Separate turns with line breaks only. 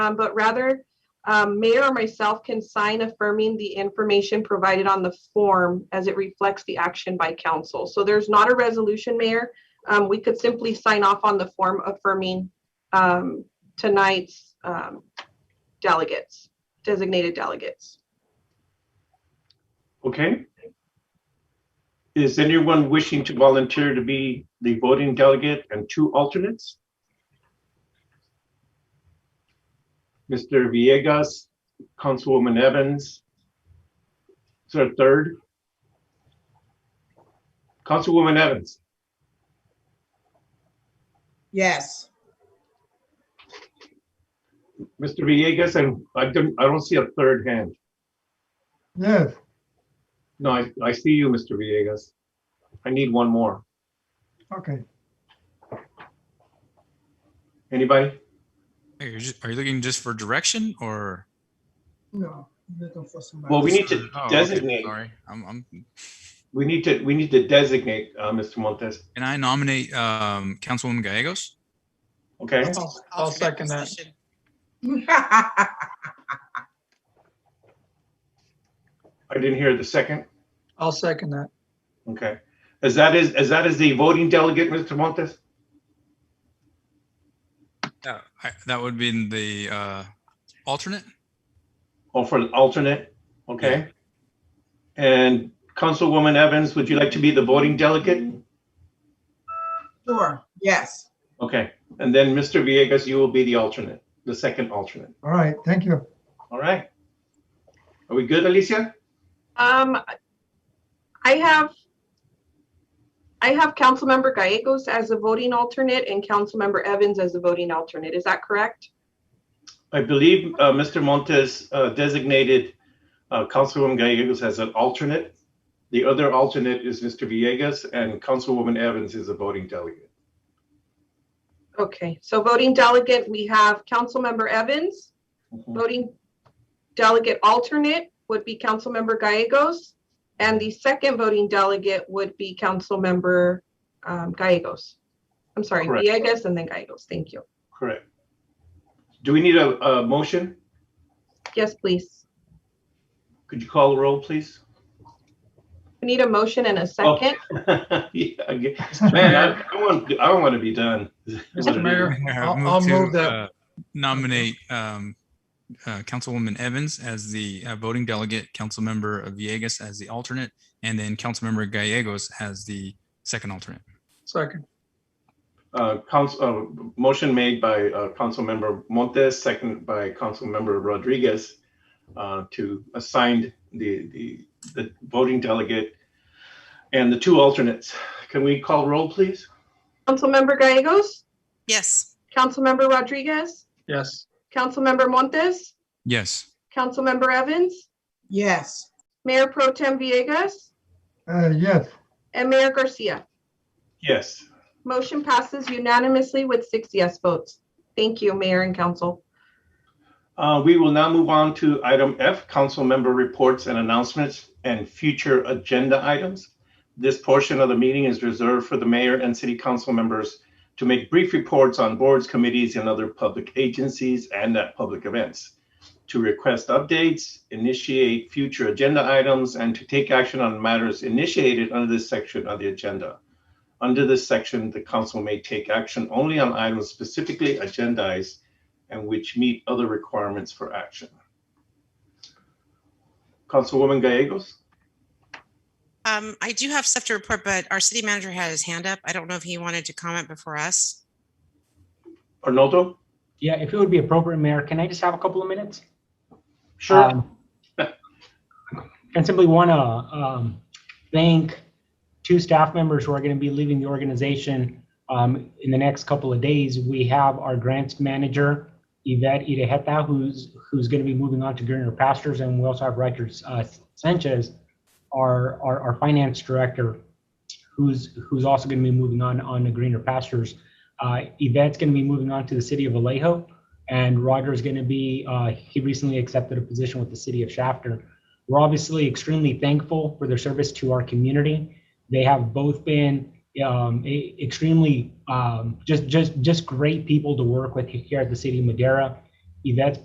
um, but rather um, mayor or myself can sign affirming the information provided on the form as it reflects the action by council. So there's not a resolution, Mayor. Um, we could simply sign off on the form affirming um, tonight's um, delegates, designated delegates.
Okay. Is anyone wishing to volunteer to be the voting delegate and two alternates? Mr. Villegas, Councilwoman Evans. Is there a third? Councilwoman Evans,
Yes,
Mr. Villegas, and I don't, I don't see a third hand.
Yes,
No, I, I see you, Mr. Villegas. I need one more.
okay.
Anybody?
Are you, ju- are you looking just for direction or?
no, looking for somebody.
Well, we need to
Oh, okay,
designate,
Sorry, I'm, I'm,
we need to, we need to designate, uh, Mr. Montes.
can I nominate, um, Councilwoman Gallegos?
Okay,
I'll- I'll second that.
I didn't hear the second.
I'll second that.
Okay. Is that is, is that is the voting delegate, Mr. Montes?
Yeah. I, that would be the, uh, alternate?
Or Oh, for the alternate? Okay. And Councilwoman Evans, would you like to be the voting delegate?
Sure, yes.
Okay. And then Mr. Villegas, you will be the alternate, the second alternate.
All right, thank you.
All right. Are we good, Alicia?
Um, I have, I have Councilmember Gallegos as a voting alternate and Councilmember Evans as a voting alternate. Is that correct?
I believe uh, Mr. Montes uh, designated uh, Councilwoman Gallegos as an alternate. The other alternate is Mr. Villegas and Councilwoman Evans is a voting delegate.
Okay, so voting delegate, we have Councilmember Evans. Voting delegate alternate would be Councilmember Gallegos. And the second voting delegate would be Councilmember um, Gallegos. I'm sorry,
Correct.
Villegas and then Gallegos. Thank you.
Correct. Do we need a, a motion?
Yes, please.
Could you call the roll, please?
We need a motion and a
Oh.
second.
Yeah, I get- Man, I- I want, I want to be done.
Mr. Mayor,
Yeah,
I'll- I'll
to,
move that.
uh, Nominate, um, uh, Councilwoman Evans as the uh, voting delegate, Councilmember Villegas as the alternate, and then Councilmember Gallegos as the second alternate.
Second,
Uh, council, uh, motion made by, uh, Councilmember Montes, second by Councilmember Rodriguez, uh, to assign the, the, the voting delegate and the two alternates. Can we call roll, please?
Councilmember Gallegos,
Yes,
Councilmember Rodriguez,
yes.
Councilmember Montes,
Yes.
Councilmember Evans,
Yes,
Mayor Pro Tem Villegas,
Uh, yes,
and Mayor Garcia.
Yes.
Motion passes unanimously with six yes votes. Thank you, Mayor and Council.
Uh, we will now move on to item F, council member reports and announcements and future agenda items. This portion of the meeting is reserved for the mayor and city council members to make brief reports on boards, committees, and other public agencies and at public events, to request updates, initiate future agenda items, and to take action on matters initiated under this section of the agenda. Under this section, the council may take action only on items specifically agendized and which meet other requirements for action. Councilwoman Gallegos?
um, I do have stuff to report, but our city manager had his hand up. I don't know if he wanted to comment before us.
Arnoldo?
Yeah, if it would be appropriate, Mayor, can I just have a couple of minutes?
Sure.
Um, I simply want to thank two staff members who are going to be leaving the organization um, in the next couple of days. We have our grants manager, Yvette Irejeta, who's, who's going to be moving on to greener pastures, and we also have Roger uh, Sanchez, our, our, our finance director, who's, who's also going to be moving on, on to greener pastures. Uh, Yvette's going to be moving on to the city of Vallejo, and Roger is going to be, uh, he recently accepted a position with the city of Shafter. We're obviously extremely thankful for their service to our community. They have both been um, e- extremely um, just just just great people to work with here at the city of Madera. Yvette's